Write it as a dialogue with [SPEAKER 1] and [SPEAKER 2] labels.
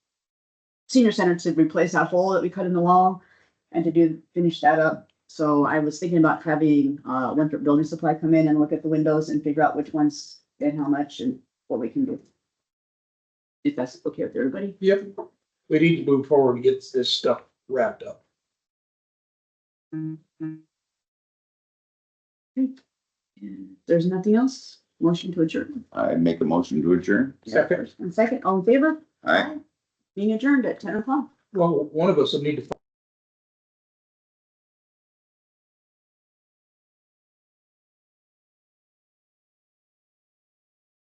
[SPEAKER 1] senior center to replace that hole that we cut in the wall and to do, finish that up. So I was thinking about having, uh, Winthrop Building Supply come in and look at the windows and figure out which ones and how much and what we can do. If that's okay with everybody.
[SPEAKER 2] Yep, we need to move forward and get this stuff wrapped up.
[SPEAKER 1] And if There's nothing else? Motion to adjourn.
[SPEAKER 3] I make a motion to adjourn.
[SPEAKER 2] Second,
[SPEAKER 1] And second, all in favor?
[SPEAKER 3] Aye.
[SPEAKER 1] Being adjourned at ten o'clock.
[SPEAKER 2] well, one of us will need to